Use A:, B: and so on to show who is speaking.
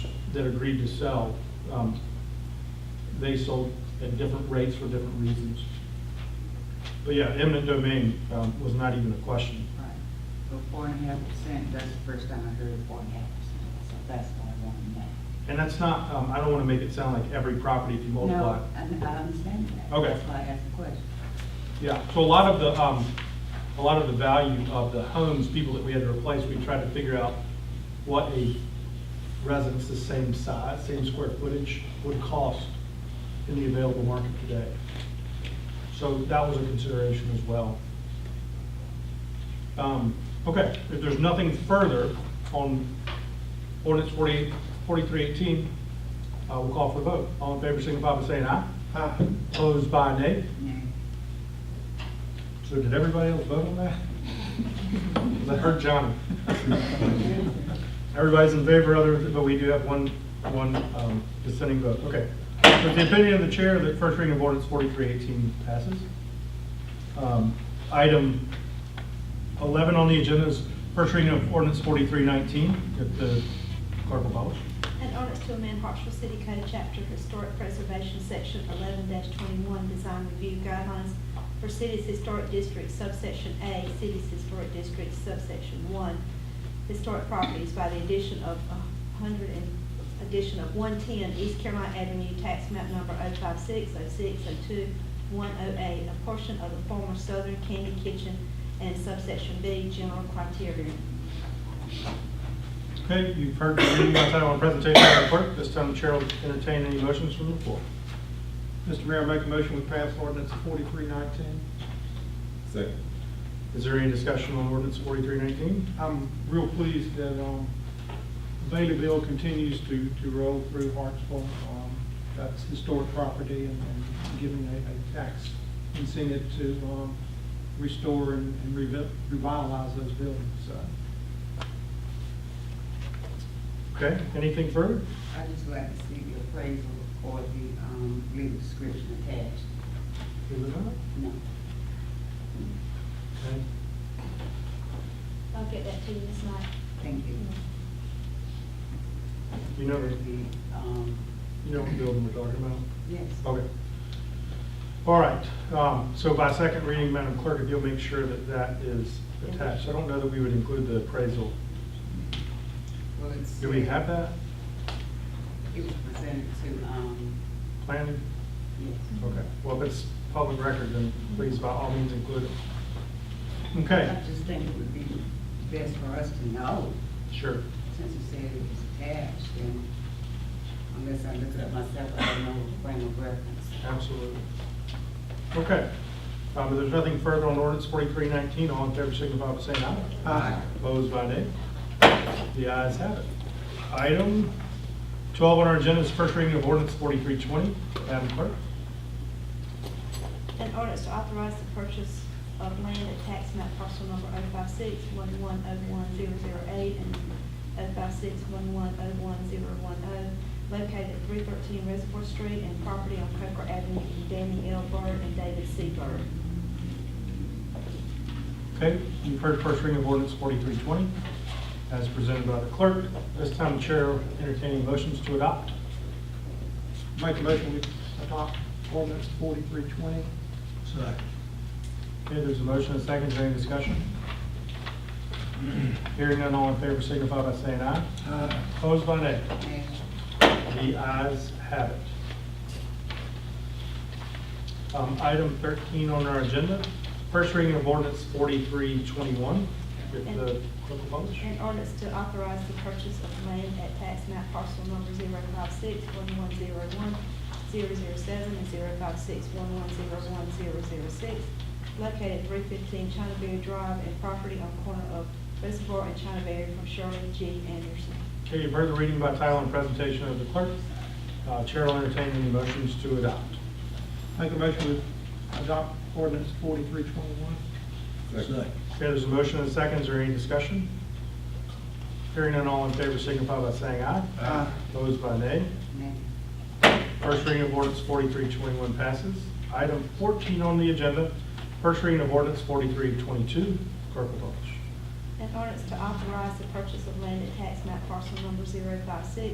A: that agreed to sell, um, they sold at different rates for different reasons. But yeah, eminent domain um, was not even a question.
B: Right, so four and a half percent, that's the first time I heard four and a half percent, so that's what I wanted to know.
A: And that's not, um, I don't want to make it sound like every property if you multiply.
B: No, I I understand that.
A: Okay.
B: That's why I asked the question.
A: Yeah, so a lot of the, um, a lot of the value of the homes, people that we had to replace, we tried to figure out what a residence the same size, same square footage would cost in the available market today. So that was a consideration as well. Um, okay, if there's nothing further on ordinance forty-eight, forty-three eighteen, uh, we'll call for the vote. All in favor, signify by saying aye. Aye. Opposed by nay.
B: Nay.
A: So did everybody else vote on that? Because I heard Johnny. Everybody's in favor, other, but we do have one, one um, dissenting vote, okay. With the opinion of the chair, the first reading of ordinance forty-three eighteen passes. Um, Item eleven on the agenda is first reading of ordinance forty-three nineteen, if the clerk will publish.
C: An ordinance to amend Hartsville City Code, Chapter Historic Preservation, Section eleven twenty-one, Design Review Guidelines for Cities Historic Districts, subsection A, Cities Historic Districts, subsection one, Historic Properties by the addition of a hundred and, addition of one-ten East Carolina Avenue, tax map number 056, 002, 108, a portion of the former Southern Candy Kitchen, and subsection B, general criteria.
A: Okay, you've heard the reading by title and presentation by the clerk. This time the chair will entertain any motions from the floor.
D: Mr. Mayor, I make a motion we pass ordinance forty-three nineteen.
E: Second.
A: Is there any discussion on ordinance forty-three nineteen?
D: I'm real pleased that, um, Baileyville continues to, to roll through Hartsville. Um, That's historic property and, and giving a, a tax incentive to, um, restore and and revi- revitalize those buildings, so.
A: Okay, anything further?
B: I just would like to see the appraisal or the, um, legal description attached. No.
A: Okay.
C: I'll get that to you this night.
B: Thank you.
A: You know,
B: The, um,
A: you know what building we're talking about?
B: yes.
A: Okay. All right, um, so by second reading, Madam Clerk, if you'll make sure that that is attached. I don't know that we would include the appraisal.
B: Well, it's- uh,
A: Do we have that
B: It was presented to, um,
A: planning?
B: yes.
A: Okay, well, if it's public record, then please by all means include it. Okay,
B: I just think it would be best for us to know,
A: sure.
B: since you said it was attached, and unless I look it up myself, I don't know the frame of reference.
A: Absolutely. Okay. Um, If there's nothing further on ordinance 4319, all in favor signify by saying aye.
D: Aye.
A: Opposed by nay? The ayes have it. Item 12 on our agenda is first reading of ordinance 4320. Madam Clerk?
C: An ordinance to authorize the purchase of land at tax map parcel number 056-1101-008 and 056-1101-010, located at three thirteen Reservoir Street and property on Coker Avenue in Danny L. Byrd and David C. Byrd.
A: Okay, you've heard first reading of ordinance 4320 as presented by the clerk. This time, the chair entertaining motions to adopt.
D: Make a motion we adopt ordinance forty-three twenty.
A: Okay, there's a motion and a second. Is there any discussion? Hearing none, all in favor signify by saying aye. Opposed by nay?
B: Aye.
A: The ayes have it. Um, Item 13 on our agenda, first reading of ordinance 4321. If the clerk will publish.
C: An ordinance to authorize the purchase of land at tax map parcel number 056-1101-007 and 056-1101-006, located at three fifteen China Berry Drive and property on corner of Reservoir and China Berry from Shirley G. Anderson.
A: Okay, you've heard the reading by title and presentation of the clerk. Uh, Chair will entertain any motions to adopt.
D: Make a motion we adopt ordinance forty-three twenty-one.
E: Second.
A: Okay, there's a motion and a second. Is there any discussion? Hearing none, all in favor signify by saying aye.
D: Aye.
A: Opposed by nay.
B: Nay.
A: First reading of ordinance forty-three twenty-one passes. Item fourteen on the agenda, first reading of ordinance forty-three twenty-two. Clerk will publish.
C: An ordinance to authorize the purchase of land at tax map parcel number 056-1101-007